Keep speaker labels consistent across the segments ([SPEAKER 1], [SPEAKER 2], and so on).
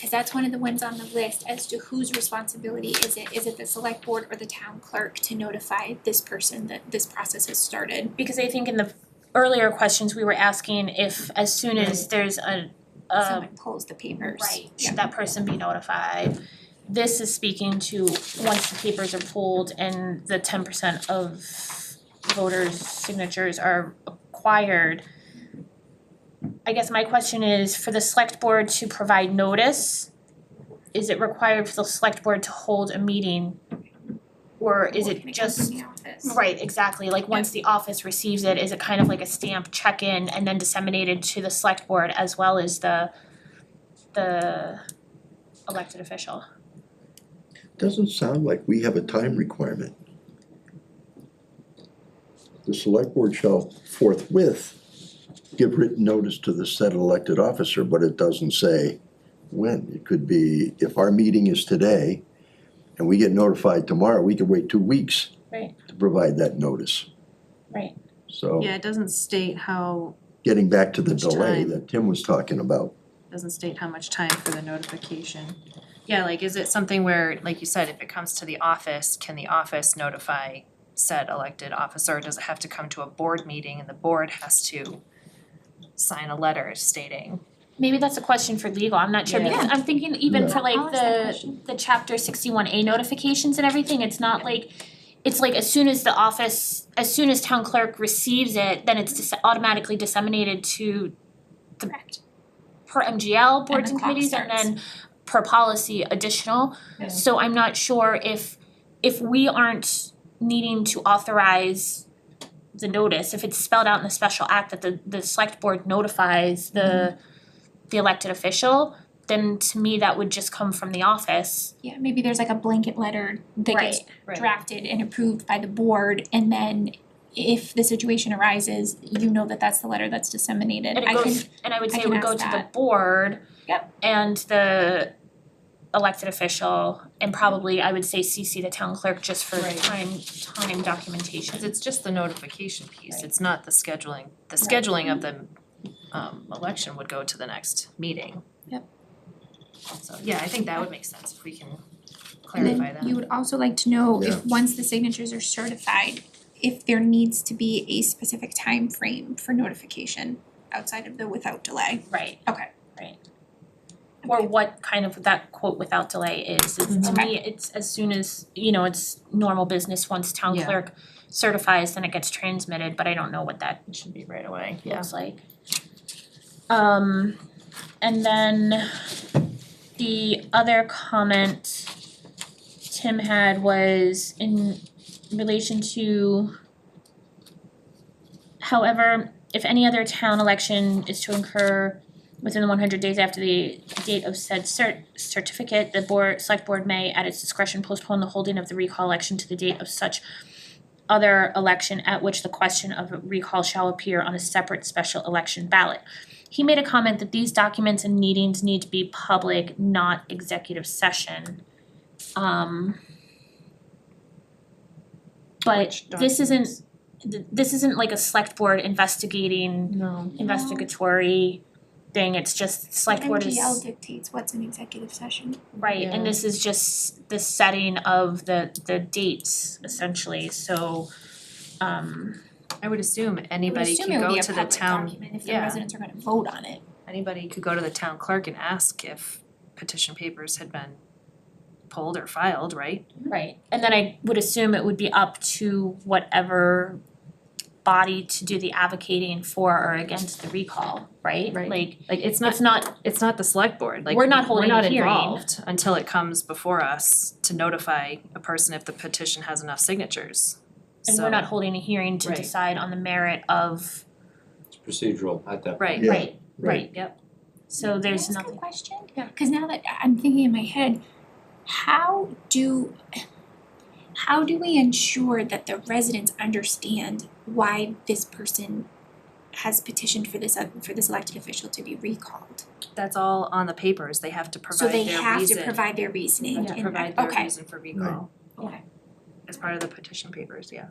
[SPEAKER 1] Cause that's one of the ones on the list as to whose responsibility is it? Is it the select board or the town clerk to notify this person that this process has started?
[SPEAKER 2] Because I think in the earlier questions, we were asking if as soon as there's a a
[SPEAKER 1] Someone pulls the papers.
[SPEAKER 2] Um, right,
[SPEAKER 1] Yeah.
[SPEAKER 2] should that person be notified? This is speaking to once the papers are pulled and the ten percent of voters' signatures are acquired. I guess my question is, for the select board to provide notice, is it required for the select board to hold a meeting? Or is
[SPEAKER 1] Or
[SPEAKER 2] it
[SPEAKER 1] can
[SPEAKER 2] just
[SPEAKER 1] come from the office?
[SPEAKER 2] Right, exactly, like once the office receives it, is it kind of like a stamp check-in and then disseminated to the select board as well as the the elected official?
[SPEAKER 3] Doesn't sound like we have a time requirement. The select board shall forthwith give written notice to the said elected officer, but it doesn't say when. It could be, if our meeting is today and we get notified tomorrow, we could wait two weeks
[SPEAKER 2] Right.
[SPEAKER 3] to provide that notice.
[SPEAKER 2] Right.
[SPEAKER 3] So
[SPEAKER 4] Yeah, it doesn't state how,
[SPEAKER 3] getting back to the
[SPEAKER 4] Much
[SPEAKER 3] delay
[SPEAKER 4] time.
[SPEAKER 3] that Tim was talking about,
[SPEAKER 4] doesn't state how much time for the notification. Yeah, like, is it something where, like you said, if it comes to the office, can the office notify said elected officer? Does it have to come to a board meeting and the board has to sign a letter stating?
[SPEAKER 2] Maybe that's a question for legal, I'm not sure,
[SPEAKER 4] Yeah.
[SPEAKER 2] because I'm thinking even
[SPEAKER 3] Yeah.
[SPEAKER 2] for like
[SPEAKER 1] I'll ask that
[SPEAKER 2] the
[SPEAKER 1] question.
[SPEAKER 2] the chapter sixty-one A notifications and everything, it's not like it's like as soon as the office, as soon as town clerk receives it, then it's dis- automatically disseminated to
[SPEAKER 1] Correct.
[SPEAKER 2] per MGL boards
[SPEAKER 1] the
[SPEAKER 2] and
[SPEAKER 1] clock
[SPEAKER 2] committees and
[SPEAKER 1] starts.
[SPEAKER 2] then per policy additional.
[SPEAKER 4] Yeah.
[SPEAKER 2] So I'm not sure if if we aren't needing to authorize the notice, if it's spelled out in the special act that the the select board notifies the
[SPEAKER 1] Mm-hmm.
[SPEAKER 2] the elected official, then to me that would just come from the office.
[SPEAKER 1] Yeah, maybe there's like a blanket letter that gets
[SPEAKER 4] Right.
[SPEAKER 1] drafted and approved by the board and then if the situation arises, you know that that's the letter that's disseminated.
[SPEAKER 2] And
[SPEAKER 1] I
[SPEAKER 2] it
[SPEAKER 1] can,
[SPEAKER 2] goes, and I would
[SPEAKER 1] I
[SPEAKER 2] say it
[SPEAKER 1] can
[SPEAKER 2] would go to
[SPEAKER 1] ask
[SPEAKER 2] the
[SPEAKER 1] that.
[SPEAKER 2] board
[SPEAKER 1] Yep.
[SPEAKER 2] and the elected official and probably I would say CC the town clerk just for
[SPEAKER 4] Right.
[SPEAKER 2] time time documentation.
[SPEAKER 4] Cause it's just the notification piece,
[SPEAKER 2] Right.
[SPEAKER 4] it's not the scheduling, the scheduling of the um election would go to the next meeting.
[SPEAKER 1] Yep.
[SPEAKER 4] So, yeah, I think that would make sense if we can
[SPEAKER 1] and
[SPEAKER 4] clarify
[SPEAKER 1] then
[SPEAKER 4] that.
[SPEAKER 1] you would also like to know
[SPEAKER 3] Yeah.
[SPEAKER 1] if, once the signatures are certified, if there needs to be a specific time frame for notification outside of the without delay.
[SPEAKER 2] Right.
[SPEAKER 1] Okay.
[SPEAKER 2] Right. Or what kind of that quote without delay is, is to
[SPEAKER 4] Mm-hmm.
[SPEAKER 2] me, it's as soon as, you know, it's normal business, once town
[SPEAKER 4] Yeah.
[SPEAKER 2] clerk certifies, then it gets transmitted, but I don't know what that
[SPEAKER 4] should be right away,
[SPEAKER 2] looks like. Um, and then the other comment Tim had was in relation to however, if any other town election is to incur within the one hundred days after the date of said cert certificate, the board, select board may at its discretion postpone the holding of the recall election to the date of such other election at which the question of recall shall appear on a separate special election ballot. He made a comment that these documents and meetings need to be public, not executive session. Um. But
[SPEAKER 4] Which
[SPEAKER 2] this isn't, th- this isn't like a select board investigating
[SPEAKER 4] No.
[SPEAKER 2] investigatory thing, it's just select board is.
[SPEAKER 1] MGL dictates what's an executive session.
[SPEAKER 2] Right, and
[SPEAKER 4] Yeah.
[SPEAKER 2] this is just the setting of the the dates essentially, so um
[SPEAKER 4] I would assume
[SPEAKER 1] I would
[SPEAKER 4] anybody
[SPEAKER 1] assume
[SPEAKER 4] could
[SPEAKER 1] it would
[SPEAKER 4] go
[SPEAKER 1] be a
[SPEAKER 4] to the
[SPEAKER 1] public
[SPEAKER 4] town,
[SPEAKER 1] document if the
[SPEAKER 4] yeah.
[SPEAKER 1] residents are gonna vote on it.
[SPEAKER 4] anybody could go to the town clerk and ask if petition papers had been pulled or filed, right?
[SPEAKER 2] right, and then I would assume it would be up to whatever body to do the advocating for or against the recall, right?
[SPEAKER 4] Right.
[SPEAKER 2] Like
[SPEAKER 4] Like, it's not,
[SPEAKER 2] it's not,
[SPEAKER 4] it's not the select board, like,
[SPEAKER 2] We're
[SPEAKER 4] we're
[SPEAKER 2] not
[SPEAKER 4] not
[SPEAKER 2] holding a hearing.
[SPEAKER 4] involved until it comes before us to notify a person if the petition has enough signatures.
[SPEAKER 2] and
[SPEAKER 4] So-
[SPEAKER 2] we're not holding a hearing to
[SPEAKER 4] Right.
[SPEAKER 2] decide on the merit of,
[SPEAKER 5] It's procedural at that
[SPEAKER 4] Right,
[SPEAKER 3] Yeah,
[SPEAKER 2] right, right,
[SPEAKER 4] yep.
[SPEAKER 2] so there's
[SPEAKER 1] Can I ask
[SPEAKER 2] nothing,
[SPEAKER 1] a question? Yeah. Cause now that I- I'm thinking in my head, how do, how do we ensure that the residents understand why this person has petitioned for this, uh, for this elected official to be recalled?
[SPEAKER 4] that's all on the papers, they have to
[SPEAKER 1] So
[SPEAKER 4] provide
[SPEAKER 1] they
[SPEAKER 4] their
[SPEAKER 1] have to
[SPEAKER 4] reason,
[SPEAKER 1] provide their reasoning
[SPEAKER 4] They
[SPEAKER 1] and,
[SPEAKER 4] have
[SPEAKER 1] okay.
[SPEAKER 4] to provide their reason for recall.
[SPEAKER 2] Right. Okay.
[SPEAKER 4] As part of the petition papers, yeah.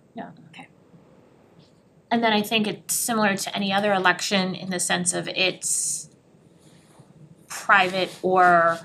[SPEAKER 2] and then I think it's similar to any other election in the sense of it's private or